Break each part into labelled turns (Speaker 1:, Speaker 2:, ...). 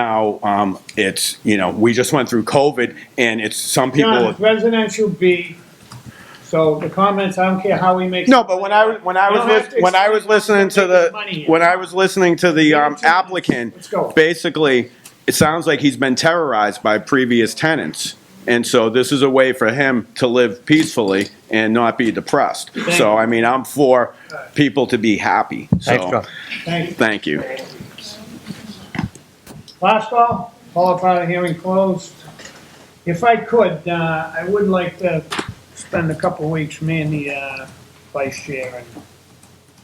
Speaker 1: Now, um, it's, you know, we just went through COVID and it's some
Speaker 2: John,
Speaker 1: people.
Speaker 2: it's residential B, so the comments, I don't care how we make.
Speaker 1: No, but when I, when I
Speaker 2: You
Speaker 1: was,
Speaker 2: don't have
Speaker 1: lis-
Speaker 2: to
Speaker 1: when I was
Speaker 2: explain
Speaker 1: listening to
Speaker 2: how they make
Speaker 1: the,
Speaker 2: money.
Speaker 1: when I was listening to the um,
Speaker 2: Let's go.
Speaker 1: applicant,
Speaker 2: Let's go.
Speaker 1: basically, it sounds like he's been terrorized by previous tenants. And so this is a way for him to live peacefully and not be depressed. So,
Speaker 2: you.
Speaker 1: I mean, I'm for people to be happy, so,
Speaker 2: Thank you.
Speaker 1: thank you.
Speaker 2: Last call, followed by the hearing closed. If I could, uh, I would like to spend a couple of weeks, me and the, uh, vice chair, and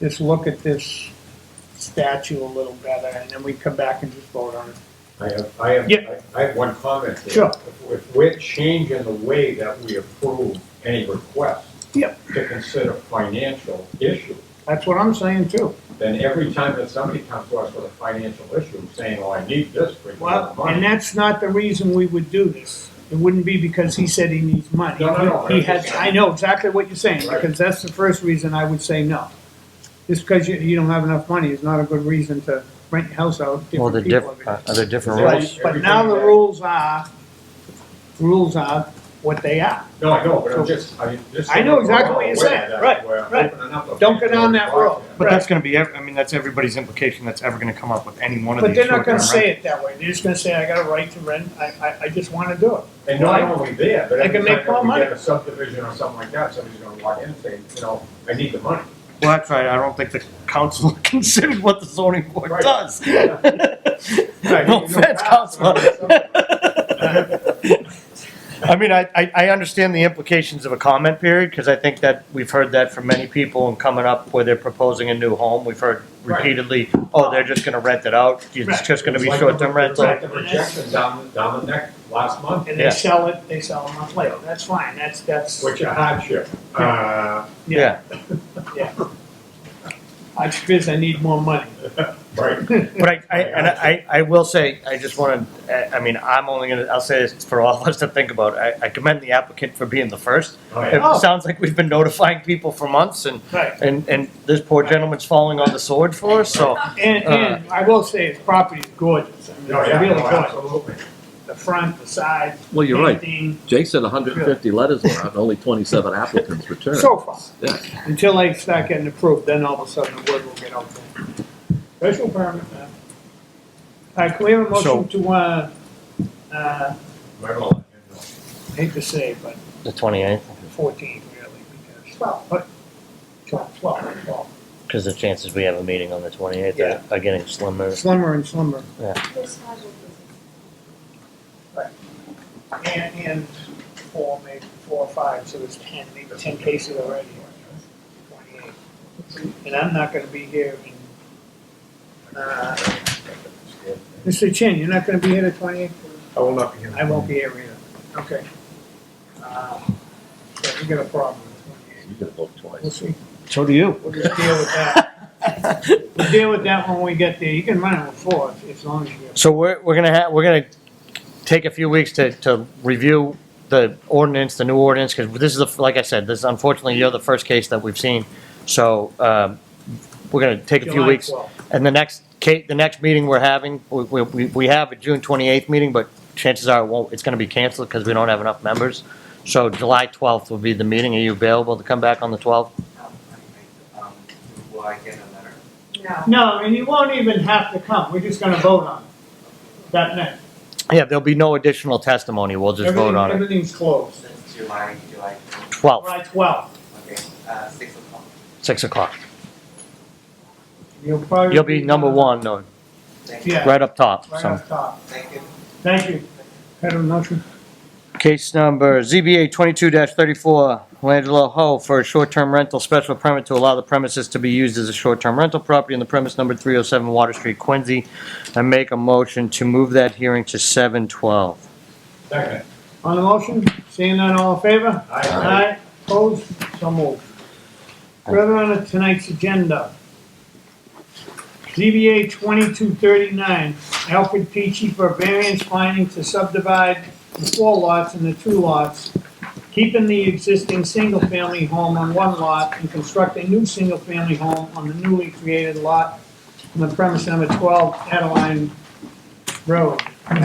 Speaker 2: just look at this statue a little better, and then we come back and just vote on it.
Speaker 3: I have, I have,
Speaker 2: Yeah.
Speaker 3: I have one comment. here.
Speaker 2: Sure.
Speaker 3: If- If we're changing the way that we approve any request
Speaker 2: Yep.
Speaker 3: to consider financial issue,
Speaker 2: That's what I'm saying too.
Speaker 3: then every time that somebody comes to us with a financial issue, saying, oh, I need this for your
Speaker 2: Well, and
Speaker 3: money.
Speaker 2: that's not the reason we would do this. It wouldn't be because he said he needs money.
Speaker 3: No, no, no.
Speaker 2: He has, I know exactly what you're saying,
Speaker 3: Right.
Speaker 2: because that's the first reason I would say no. Just because you, you don't have enough money is not a good reason to rent your house out. to
Speaker 4: Well, the
Speaker 2: different
Speaker 4: diff,
Speaker 2: people.
Speaker 4: uh, are there different
Speaker 3: Right.
Speaker 4: rules?
Speaker 2: But now the rules are, rules are what they are.
Speaker 3: No, I know, but I'm just, I mean, just.
Speaker 2: I know exactly what you're saying. Right, right. Don't go down that road.
Speaker 4: But
Speaker 2: Right.
Speaker 4: that's gonna be, ev- I mean, that's everybody's implication that's ever gonna come up with any one of
Speaker 2: But
Speaker 4: these.
Speaker 2: they're not gonna
Speaker 4: short-term
Speaker 2: say it that way. They're just gonna say, I got a right to rent, I, I, I just wanna do it.
Speaker 3: And not only there, but
Speaker 2: They can
Speaker 3: every
Speaker 2: make
Speaker 3: time
Speaker 2: more
Speaker 3: that we
Speaker 2: money.
Speaker 3: get a subdivision or something like that, somebody's gonna walk in and say, you know, I need the money.
Speaker 4: rentals. Well, that's right, I don't think the council considered what the zoning board
Speaker 3: Right.
Speaker 4: does.
Speaker 3: Yeah. Right,
Speaker 4: No
Speaker 3: you
Speaker 4: offense,
Speaker 3: pass,
Speaker 4: council.
Speaker 3: but-
Speaker 4: I mean, I, I, I understand the implications of a comment period, because I think that we've heard that from many people and coming up where they're proposing a new home, we've heard
Speaker 3: Right.
Speaker 4: repeatedly, oh, they're just gonna rent it out,
Speaker 2: Right.
Speaker 4: it's just gonna be
Speaker 3: It's like
Speaker 4: short-term
Speaker 3: the-
Speaker 4: rental.
Speaker 3: Like the rejection down, down the neck last month,
Speaker 2: And they
Speaker 4: Yeah.
Speaker 2: sell it, they sell them month later. That's fine, that's, that's.
Speaker 3: which a hardship. Uh,
Speaker 4: Yeah,
Speaker 2: I just, feel I need more money.
Speaker 3: right,
Speaker 4: But I, I, and I, I will say, I just want to, I mean, I'm only gonna, I'll say this for all of us to think about. I, I commend the applicant for being the first.
Speaker 3: oh yeah,
Speaker 2: Oh.
Speaker 4: It sounds like we've been notifying people for months and,
Speaker 2: Right.
Speaker 4: and, and this poor gentleman's falling on the sword for us, so.
Speaker 5: Uh,
Speaker 2: And, and I will say, his property's gorgeous. I mean,
Speaker 3: no,
Speaker 2: it's
Speaker 3: Oh, yeah,
Speaker 2: really
Speaker 3: no,
Speaker 2: gorgeous.
Speaker 3: absolutely.
Speaker 2: The front, the side.
Speaker 5: Well, you're right.
Speaker 2: painting,
Speaker 5: Jake said 150 letters went out and only 27 applicants returned.
Speaker 2: So far,
Speaker 5: Yeah.
Speaker 2: until they start getting approved, then all of a sudden the word will get out there. Special permit, man. All right, can we have a motion to, uh, uh,
Speaker 3: Right on.
Speaker 2: hate to say, but
Speaker 4: The twenty-eighth,
Speaker 2: fourteen really, because, well, but, twelve, twelve, twelve.
Speaker 4: because the chances we have a meeting on the twenty-eighth
Speaker 2: are-
Speaker 4: are getting slimmer.
Speaker 2: Slimmer and slimmer.
Speaker 6: This casual business.
Speaker 2: And, and four, maybe four or five, so there's ten, maybe ten cases already. Twenty-eight. And I'm not gonna be here in, uh, Mr. Chin, you're not gonna be here the twenty-eighth?
Speaker 3: I will not be here.
Speaker 2: I won't be here either, okay. Uh, Yeah, we got a problem with twenty-eight,
Speaker 5: You can vote
Speaker 2: we'll
Speaker 5: twice.
Speaker 2: see,
Speaker 4: So do you.
Speaker 2: we'll just deal with that. We'll deal with that when we get there, you can run it with four, if- as long as you.
Speaker 4: So we're, we're gonna have, we're gonna take a few weeks to, to review the ordinance, the new ordinance, because this is, the like I said, this unfortunately, you're the first case that we've seen. So, um, we're gonna take a few
Speaker 2: July
Speaker 4: weeks.
Speaker 2: 12th.
Speaker 4: And the next, Kate, the next meeting we're having, we, we- we, we have a June twenty-eighth meeting, but chances are it won't, it's gonna be canceled because we don't have enough members. So July twelfth will be the meeting. Are you available to come back on the twelfth?
Speaker 7: Will I get a letter?
Speaker 6: No.
Speaker 2: No, and you won't even have to come, we're just gonna vote on it, that night.
Speaker 4: Yeah, there'll be no additional testimony. We'll just vote
Speaker 2: Everything-
Speaker 4: on it.
Speaker 2: Everything's closed.
Speaker 7: Since July, July,
Speaker 4: Twelfth,
Speaker 2: July 12th.
Speaker 7: okay, uh, six o'clock.
Speaker 4: six o'clock.
Speaker 2: You'll probably.
Speaker 4: You'll be number one, no,
Speaker 7: Thank you.
Speaker 2: Yeah.
Speaker 4: right up top,
Speaker 2: Right
Speaker 4: so.
Speaker 2: off top.
Speaker 7: Thank you.
Speaker 2: Thank you. Had a motion?
Speaker 4: Case number ZBA twenty-two thirty-four, Langelo Ho for a short-term rental special permit to allow the premises to be used as a short-term rental property on the premise number three oh seven Water Street, Quincy. I make a motion to move that hearing to seven twelve.
Speaker 3: Second.
Speaker 2: On the motion, seeing none, all in favor?
Speaker 3: Aye.
Speaker 2: Aye, opposed, so moved. Further on to tonight's agenda. ZBA 2239, Alfred Peachy for variance finding to subdivide the four lots into two lots, keeping the existing single-family home on one lot and construct a new single-family home on the newly created lot on the premise number 12 Adeline road.